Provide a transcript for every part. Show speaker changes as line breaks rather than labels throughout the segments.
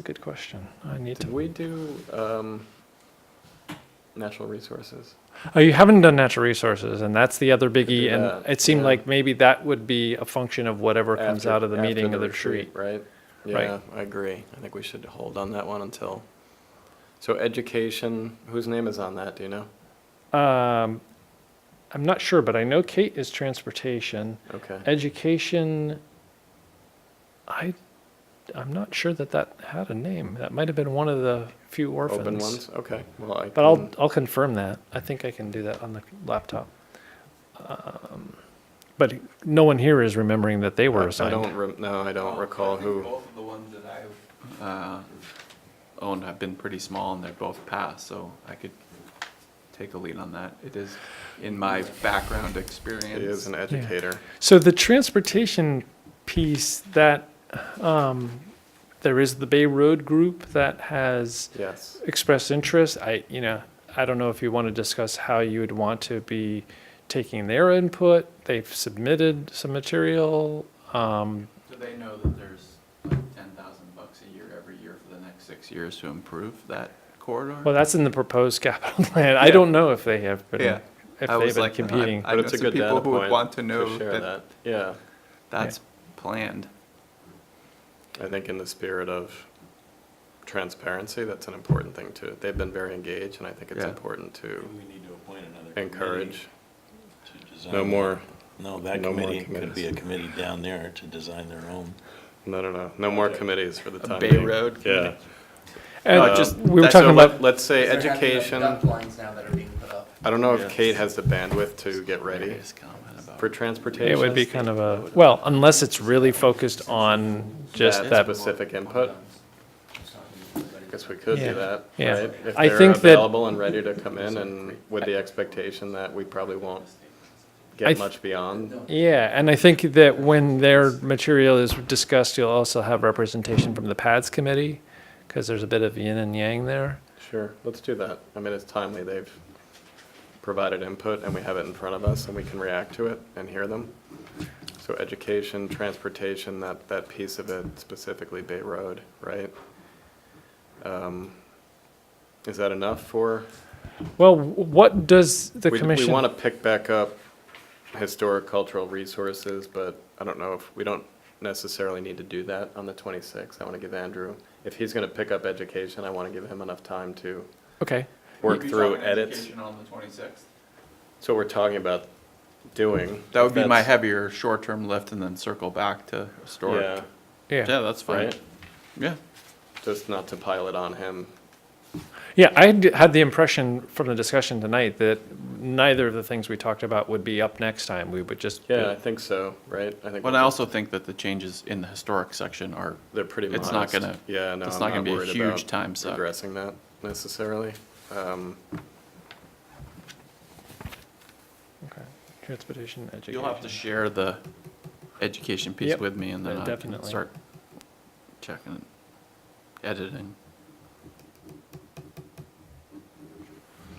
a good question. I need
Did
to.
we do um, natural resources?
Oh, you haven't done natural resources, and that's the other biggie. And
that,
it seemed
yeah.
like maybe that would be a function of whatever comes
After-
out of the
after
meeting of the retreat.
Right?
Right.
Yeah, I agree. I think we should hold on that one until, so education, whose name is on that, do you know?
Um, I'm not sure, but I know Kate is transportation.
Okay.
Education, I, I'm not sure that that had a name. That might have been one of the few orphans.
Open ones, Mm. okay. Well, I
But I'll,
can-
I'll confirm that. I think I can do that on the laptop. Um, But no one here is remembering that they
I-
were
I don't,
assigned.
rem- no, I don't
Well,
recall
I think
who.
Both of the ones that I've uh, owned have been pretty small and they're both passed, so I could take a lead on that. It is in my background experience.
He is an educator.
So the transportation piece that, um, there is the Bay Road Group that has
Yes.
expressed interest. I, you know, I don't know if you want to discuss how you would want to be taking their input. They've submitted some material. Um,
Do they know that there's like ten thousand bucks a year every year for the next six years to improve that
Well,
corridor?
that's in the proposed capital plan. I don't know if they have
Yeah.
been, if
I
they've
was
been
like, I-
competing.
But
know
it's a
some
good
people
data
who would
point
want to
to
know
share that.
that-
Yeah,
That's planned.
I think in the spirit of transparency, that's an important thing too. They've been very engaged and I think it's
Yeah.
important to
We need to appoint another committee
encourage.
to design-
No more,
No, that
no more
committee could be
committees.
a committee down there to design their own.
no, no, no, no more committees for the
A
time
Bay
being.
Road
Yeah.
committee.
And
uh,
Um,
just, we were
so
talking
let-
about,
Let's say
They're having, like,
education.
duck
I
lines now that are being put up.
don't know if Kate has the bandwidth to get ready
Serious comment about-
for transportation.
it would be kind of a, well, unless it's really focused on just
That
that.
Specific input.
Just talking to everybody.
I guess we could
Yeah.
do that,
Yeah.
right? If
I
they're
think that-
available and ready to come in and with the expectation that we probably won't
I
get
th-
much beyond.
Yeah, and I think that when their material is discussed, you'll also have representation from the PADS committee, because there's a bit of yin and yang there.
Sure, let's do that. I mean, it's timely. They've provided input and we have it in front of us and we can react to it and hear them. So education, transportation, that, that piece of it, specifically Bay Road, right? Um, Is that enough for?
Well, what does the
We-
commission?
We want to pick back up historic cultural resources, but I don't know if, we don't necessarily need to do that on the 26th. I want to give Andrew, if he's going to pick up education, I want to give him enough time to
Okay,
work
You'd be
through
talking
edits.
education On the twenty-sixth.
So we're talking about doing.
That would be my
That's-
heavier short-term lift and then circle back to
Yeah,
historic.
yeah.
Yeah, that's fine.
right?
Yeah.
Just not to pile it on him.
Yeah, I had- had the impression from the discussion tonight that neither of the things we talked about would be up next time. We would just.
Yeah, I think so, right? I think
But I also think that the changes in the historic section are,
they're pretty modest.
it's not gonna-
Yeah, no,
it's
I'm
not gonna
not
be a
worried about
huge time suck.
addressing that necessarily. Um,
Okay. Transportation, education.
you'll have to share the education piece
Yep.
with me and then
Yeah,
I can
definitely.
start checking, editing.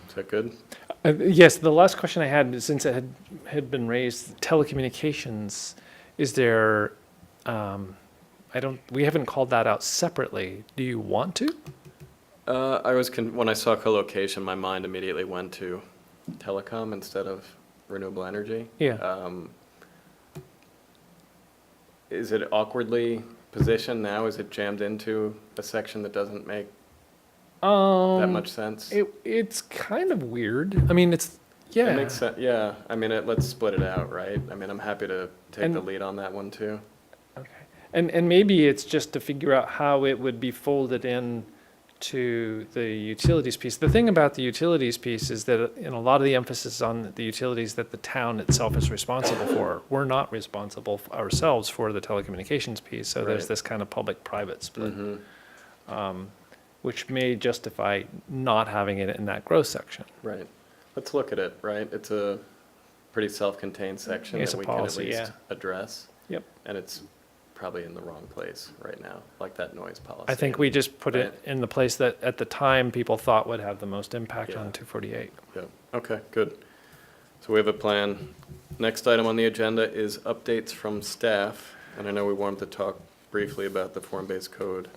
Is that good?
Uh, Yes, the last question I had, since it had, had been raised, telecommunications, is there, um, I don't, we haven't called that out separately. Do you want to?
Uh, I was con- when I saw co-location, my mind immediately went to telecom instead of renewable energy.
Yeah.
Um, is it awkwardly positioned now? Is it jammed into a section that doesn't make
Um,
that much sense?
It, it's kind of weird. I mean, it's, yeah.
It makes sense. Yeah. I mean, it, let's split it out, right? I mean, I'm happy to take the
And-
lead on that one too.
Okay. And, and maybe it's just to figure out how it would be folded in to the utilities piece. The thing about the utilities piece is that in a lot of the emphasis is on the utilities that the town itself is responsible for, we're not responsible f- ourselves for the telecommunications piece. So there's
Right. Mm-hmm.
this kind of public-private split, um, which may justify not having it in that growth section.
Right. Let's look at it, right? It's a pretty self-contained section
It's a
that we can at
policy,
least
yeah.
address.
Yep.
And it's probably in the wrong place right now, like that noise policy.
I think we just put it in the place that at the time people thought would have the most impact
Yeah.
on 248.
Yeah, okay, good. So we have a plan. Next item on the agenda is updates from staff. And I know we wanted to talk briefly about the form-based code